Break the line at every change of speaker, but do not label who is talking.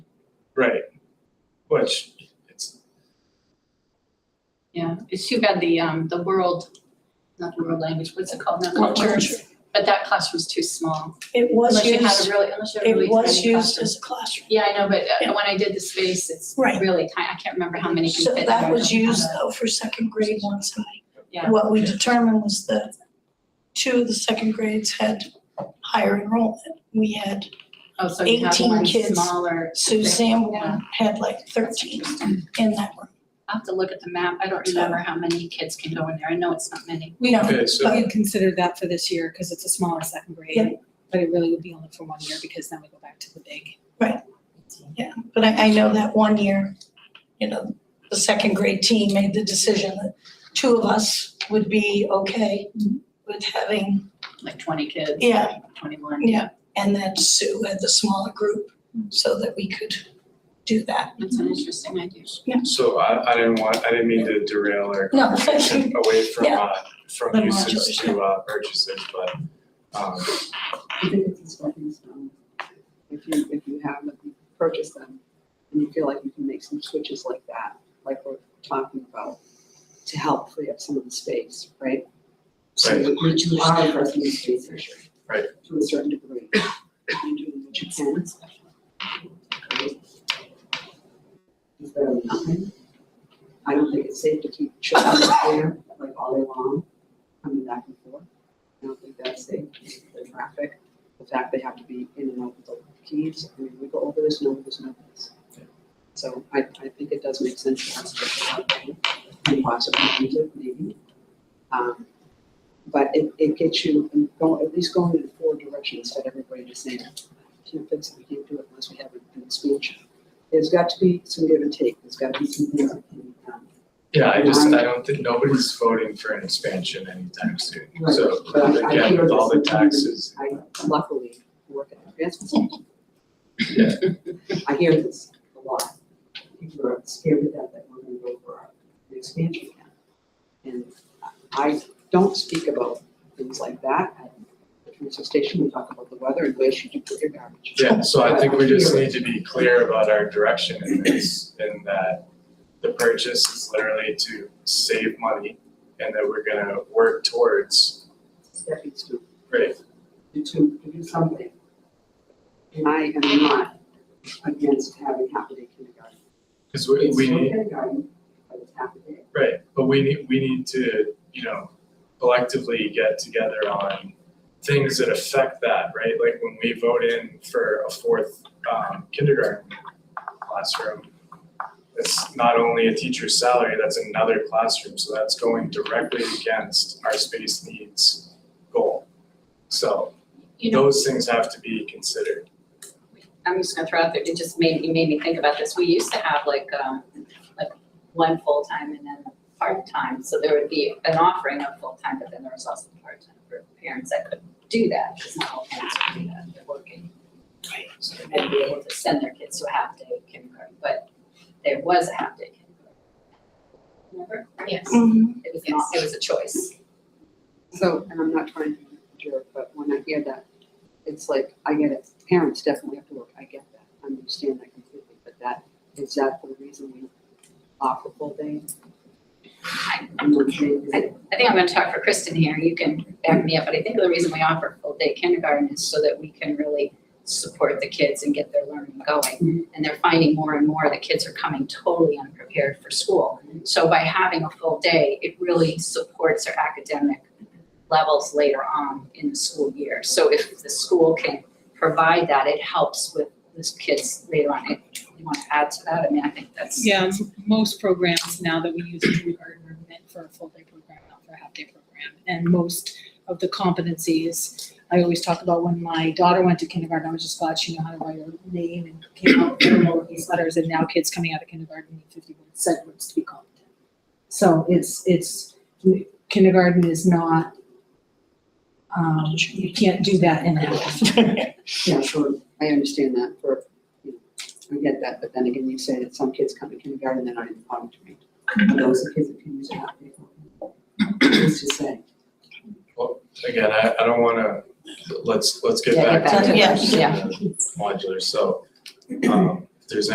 Right. Which, it's,
Yeah, it's too bad the, um, the world, not the world language, what's it called now?
World
Culture. But that classroom's too small.
It was
Unless you had a
used,
really, unless you had a really
it was
tiny
used
classroom.
as a classroom.
Yeah, I know, but
Yeah.
uh, when I did the space, it's
Right.
really tiny. I can't remember how many can
So
fit. in
that
there.
was used though for second grade one side.
Yeah.
What we determined was that two of the second grades had higher enrollment. We had,
Oh, so you have
18
one
kids.
smaller.
Suzanne
Yeah.
one had like thirteen in that room.
I'll have to look at the map. I don't
So-
remember how many kids can go in there. I know it's not many.
We don't,
okay, so,
But-
We had considered that for this year because it's a smaller second
Yeah.
grade, but it really would be only for one year because then we go back to the big.
yeah, but I, I know that one year, you know, the second grade team made the decision that two of us would be okay
Mm-hmm.
with having,
like twenty kids.
yeah,
Twenty-one.
Yeah, and then Sue had the smaller group so that we could do that.
That's an interesting idea.
so I, I didn't want, I didn't mean to derail our
No.
conversation away from,
Yeah.
uh, from
The
usage
modulation.
to, uh, purchases, but, um,
I think it's important, um, if you, if you have, if you purchase them, and you feel like you can make some switches like that, like we're talking about, to help free up some of the space, right? So
Right.
you you are addressing the space issue.
Right.
To a certain degree. You're doing what you can. Right? Is better than nothing. I don't think it's safe to keep children there like all day long, coming back and forth. I don't think that's safe, the traffic, the fact they have to be in and out with the keys, I mean, we go over this, no, there's no this. So I, I think it does make sense to us to go out there and possibly use it, maybe. Um, But it, it gets you, um, go, at least going in four directions, instead of everybody just saying, can't fix it, we can't do it unless we have an expansion. There's got to be some give and take, there's got to be some, you know, um,
yeah, I just, I don't think, nobody's voting for an expansion anytime soon.
Right,
So,
but I- I
again,
hear
with all the
this sometimes.
taxes,
I luckily work at the transfer station.
Yeah.
I hear this a lot. People are scared to death that we're gonna go for an expansion plan. And I don't speak about things like that at the transfer station. We talk about the weather and where should you put your garbage.
Yeah, so I think we just need to be clear about our direction in this, in that the purchase is literally to save money and that we're gonna work towards,
Stepping stool.
right,
to, to do something. And I am not against having half a day kindergarten.
cause we,
It's
we
still
need,
kindergarten, but it's half a day.
right, but we need, we need to, you know, collectively get together on things that affect that, right? Like when we vote in for a fourth um kindergarten classroom, it's not only a teacher's salary, that's another classroom, so that's going directly against our space needs goal. So
You know,
those things have to be considered.
I'm just gonna throw out there, it just made, you made me think about this. We used to have like, um, like one full-time and then a part-time. So there would be an offering of full-time, but then there was also part-time for parents that couldn't do that. Because not all parents could do that, they're working.
Right.
So they might be able to send their kids to a half-day kindergarten, but there was a half-day kindergarten. Remember? Yes.
Mhm.
It was not, it was a choice.
So, and I'm not trying to be a jerk, but when I hear that, it's like, I get it, parents definitely have to work, I get that, I understand that completely, but that, is that the reason we offer full day?
I-
I'm not saying that-
I think I'm gonna talk for Kristen here, you can back me up, but I think the reason we offer full-day kindergarten is so that we can really support the kids and get their learning going. And they're finding more and more the kids are coming totally unprepared for school. So by having a full day, it really supports their academic levels later on in the school year. So if the school can provide that, it helps with those kids later on. If You wanna add to that? I mean, I think that's.
Yeah, m- most programs now that we use in kindergarten are meant for a full day program, not for a half day program. And most of the competencies, I always talk about when my daughter went to kindergarten, I was just glad she knew how to write her name and came out with all of these letters. And now kids coming out of kindergarten need fifty word segments to be competent. So it's, it's, kindergarten is not, um, you can't do that in a half.
Yeah, sure, I understand that for, you know, I get that, but then again, you say that some kids come to kindergarten, they're not even talking to me. And those are kids that can use it out Who's to say?
Again, I I don't wanna, let's let's get
Yeah,
back
get
to
back
the
to
that, yeah.
modular, so um